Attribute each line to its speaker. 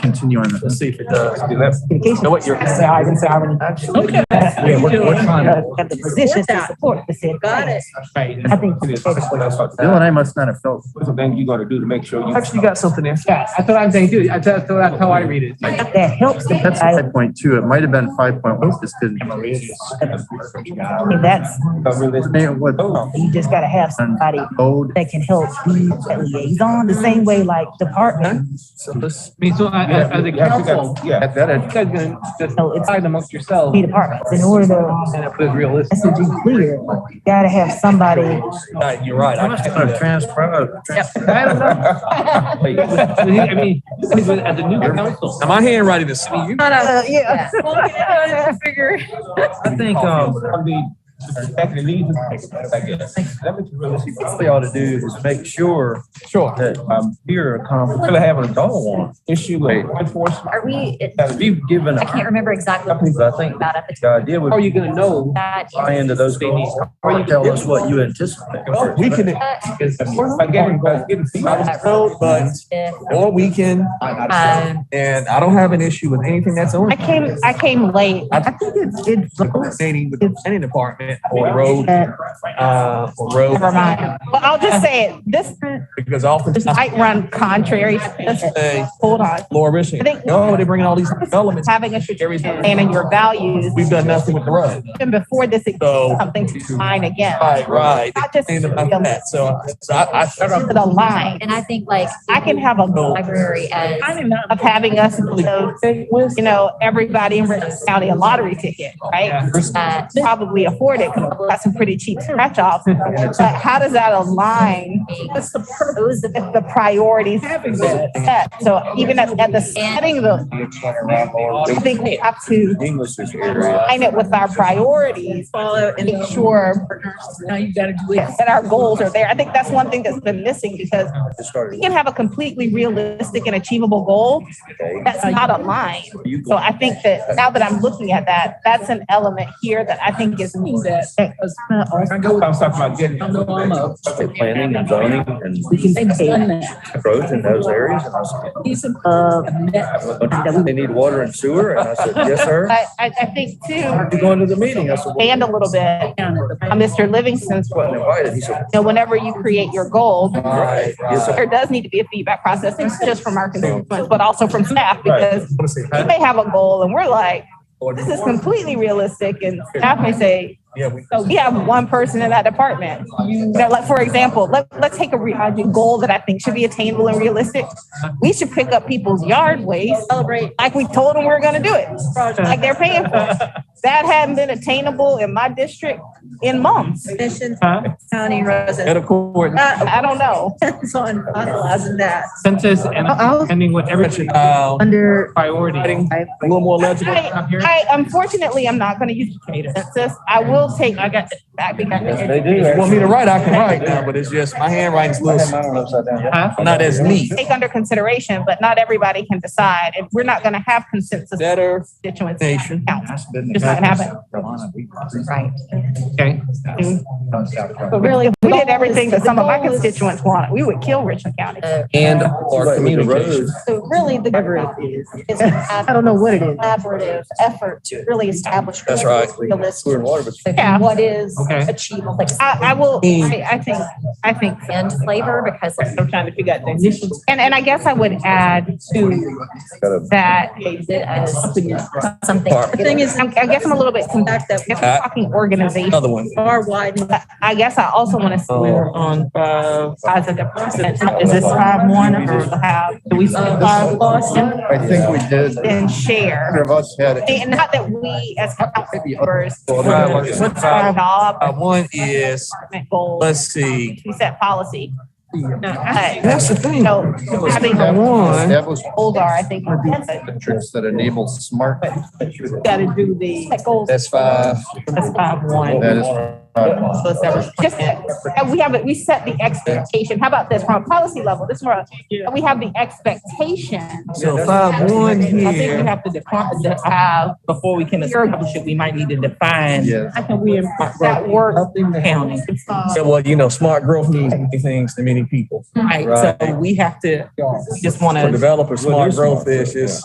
Speaker 1: continue on this.
Speaker 2: Let's see if it does. Do that.
Speaker 3: In case
Speaker 2: Know
Speaker 3: you
Speaker 2: what your-
Speaker 3: say hi, you can say how many.
Speaker 2: Okay.
Speaker 3: Yeah, we're, we're trying to. Have the
Speaker 4: Support
Speaker 3: positions to
Speaker 4: that.
Speaker 3: support the said.
Speaker 4: Got it.
Speaker 2: Right.
Speaker 3: I think-
Speaker 1: Bill and I must not have felt.
Speaker 2: What's the thing you gotta do to make sure you?
Speaker 5: Actually, you got something there. Yeah, that's what I'm saying too. That's, that's how I read it.
Speaker 3: That helps. the
Speaker 1: That's
Speaker 3: I-
Speaker 1: five point two. It might have been five point one. This didn't.
Speaker 3: I mean, that's,
Speaker 1: They- what-
Speaker 2: Oh.
Speaker 3: you just gotta have somebody
Speaker 1: Code.
Speaker 3: that can help be a liaison, the same way like department.
Speaker 2: So let's.
Speaker 5: I mean, so I- as, as a council,
Speaker 2: Yeah.
Speaker 1: That, that,
Speaker 5: you guys gonna just
Speaker 3: No, it's-
Speaker 5: decide amongst yourselves.
Speaker 3: Be departments, in order to,
Speaker 5: And if it's realistic.
Speaker 3: that's to be clear, you gotta have somebody.
Speaker 2: Right, You're right. I can't do that.
Speaker 6: uh,
Speaker 5: I don't know. I mean, I mean, as a as a new council.
Speaker 2: Now, my handwriting is. I mean, you-
Speaker 3: Uh, yeah.
Speaker 4: Figure.
Speaker 2: I think, um. What they ought to do is make sure
Speaker 5: Sure.
Speaker 2: that, um, here are conflict, really having a dog one issue with enforcement.
Speaker 7: Are we, it-
Speaker 2: Because we've given
Speaker 7: I can't
Speaker 2: our
Speaker 7: remember exactly what
Speaker 2: companies, I think,
Speaker 7: about at the
Speaker 2: the idea would
Speaker 5: How are
Speaker 2: be
Speaker 5: you gonna know?
Speaker 7: that.
Speaker 2: buy into those goals. Or tell us what you anticipate.
Speaker 6: We can,
Speaker 5: Because
Speaker 2: By getting, by getting feedback.
Speaker 6: vote, but all weekend,
Speaker 7: Um,
Speaker 6: and I don't have an issue with anything that's on.
Speaker 4: I came, I came late.
Speaker 6: I think it's, it's coordinating with the planning department or road,
Speaker 3: That-
Speaker 6: uh, or road,
Speaker 4: Never mind. But I'll just say it. This,
Speaker 6: because often,
Speaker 4: this might run contrary to this.
Speaker 6: hey,
Speaker 4: Hold on.
Speaker 6: Laura
Speaker 4: I
Speaker 6: Richard,
Speaker 4: think
Speaker 6: oh, they're bringing all these developments.
Speaker 4: having a strategic plan and your values,
Speaker 6: We've done nothing with the road.
Speaker 4: even before this, it's
Speaker 6: So,
Speaker 4: something to mine again.
Speaker 6: right, right.
Speaker 4: Not just
Speaker 6: And about
Speaker 4: to
Speaker 6: that, so, so I, I
Speaker 4: the line.
Speaker 7: And I think like.
Speaker 4: I can have a goal
Speaker 7: Library as.
Speaker 4: of having us, you know, everybody in Richland County a lottery ticket, right?
Speaker 7: uh,
Speaker 4: Probably afford it, 'cause we've got some pretty cheap scratch offs. But how does that align
Speaker 7: being-
Speaker 4: What's the purpose of the priorities set? So even at, at the setting of those, I think we have to
Speaker 2: English is area.
Speaker 4: align it with our priorities. Follow and make sure
Speaker 8: Now you gotta do it.
Speaker 4: that our goals are there. I think that's one thing that's been missing because
Speaker 2: It started
Speaker 4: we can have a completely realistic and achievable goal
Speaker 2: today.
Speaker 4: that's not aligned.
Speaker 2: You
Speaker 4: So I think that now that I'm looking at that, that's an element here that I think is.
Speaker 8: That- 'cause
Speaker 2: I go, I'm talking about getting.
Speaker 8: I know I'm up.
Speaker 2: Planning and zoning and
Speaker 8: We can done that.
Speaker 2: growth in those areas. And I said,
Speaker 8: These are-
Speaker 3: Uh,
Speaker 8: that-
Speaker 2: They need water and sewer, and I said, yes, sir.
Speaker 4: But I, I think too,
Speaker 2: You're going to the meeting, I said, well,
Speaker 4: and a little bit um,
Speaker 8: down at the-
Speaker 4: on Mr. Livingston's
Speaker 2: I'm
Speaker 4: role.
Speaker 2: invited, he said.
Speaker 4: You know, whenever you create your goal,
Speaker 2: Right, yes, sir.
Speaker 4: there does need to be a feedback process, not just from our constituents, but also from staff, because we may have a goal and we're like, this is completely realistic, and staff may say,
Speaker 6: Yeah, we.
Speaker 4: so we have one person in that department. You know, like, for example, let, let's take a re- a goal that I think should be attainable and realistic. We should pick up people's yard waste, celebrate, like we told them we were gonna do it, like they're paying for it. That hadn't been attainable in my district in months.
Speaker 9: Mission
Speaker 5: Huh?
Speaker 9: County Rosa.
Speaker 6: At a court.
Speaker 4: I don't know.
Speaker 9: Depends on finalizing that.
Speaker 5: Census and depending what every
Speaker 6: Uh,
Speaker 9: Under.
Speaker 5: priority.
Speaker 6: a little more legible.
Speaker 4: I,
Speaker 5: Up here.
Speaker 4: I unfortunately, I'm not gonna use the census. I will take, I got, I think I
Speaker 2: Yes,
Speaker 4: can.
Speaker 2: they do.
Speaker 6: If you want me to write, I can write now, but it's just, my handwriting's a
Speaker 2: I had
Speaker 6: little,
Speaker 2: mine upside down.
Speaker 5: Huh?
Speaker 6: not as neat.
Speaker 4: Take under consideration, but not everybody can decide. If we're not gonna have consensus
Speaker 6: Better
Speaker 4: constituents,
Speaker 6: nation.
Speaker 4: council, just not gonna happen.
Speaker 7: Right.
Speaker 5: Okay.
Speaker 4: But really, if we did everything that some of my constituents wanted, we would kill Richland County.
Speaker 6: And
Speaker 2: But
Speaker 6: our
Speaker 2: with the
Speaker 6: communication.
Speaker 2: roads,
Speaker 4: So really, the
Speaker 3: Whatever
Speaker 4: government
Speaker 3: it is.
Speaker 4: is a
Speaker 3: I don't know what it is.
Speaker 4: collaborative effort to really establish.
Speaker 6: That's right.
Speaker 2: Sewer and
Speaker 4: Realistic,
Speaker 2: water, but
Speaker 4: Yeah.
Speaker 7: What is
Speaker 5: Okay.
Speaker 7: achievable, like,
Speaker 4: I, I will, I, I think, I think,
Speaker 7: and flavor, because like,
Speaker 4: I'm trying to figure out the initials. And, and I guess I would add to
Speaker 2: it's got a-
Speaker 4: that,
Speaker 7: is it as something.
Speaker 6: Part.
Speaker 9: The thing is,
Speaker 4: I'm- I guess I'm a little bit,
Speaker 9: the
Speaker 4: con- I
Speaker 9: fact that
Speaker 4: guess we're talking organization.
Speaker 6: Another one. Uh,
Speaker 9: are widening.
Speaker 4: I- I guess I also want to see where on, uh, size of the person, is this five one or have, do we split five Boston
Speaker 1: I think we did.
Speaker 4: and share?
Speaker 1: Of us had it.
Speaker 4: And not that we as council members.
Speaker 6: Well, five one is-
Speaker 4: would start off
Speaker 6: Uh, one is,
Speaker 4: department goals.
Speaker 6: let's see,
Speaker 4: We set policy. But,
Speaker 6: that's the
Speaker 4: you
Speaker 6: thing.
Speaker 4: know, having
Speaker 6: That
Speaker 4: goals
Speaker 6: one,
Speaker 1: Established
Speaker 4: are, I think, would be good.
Speaker 1: metrics that enable smart.
Speaker 4: Gotta do the. Set goals.
Speaker 6: that's five.
Speaker 4: That's five one.
Speaker 1: That is. uh,
Speaker 4: So it's every- Just, and we have, it. we set the expectation. How about this from a policy level? This more, we have the expectation.
Speaker 6: So five one
Speaker 8: I think we
Speaker 6: here.
Speaker 8: have to define, that have, before we can establish it, we might need to define.
Speaker 1: Yes.
Speaker 8: How can we impact
Speaker 4: That uh, work.
Speaker 8: county?
Speaker 6: So, well, you know, smart growth means many things to many people.
Speaker 8: Right, so we have to, we just wanna.
Speaker 6: For developers,
Speaker 2: Well,
Speaker 6: smart
Speaker 2: they're smart
Speaker 6: growth is
Speaker 2: growth, yeah.
Speaker 6: just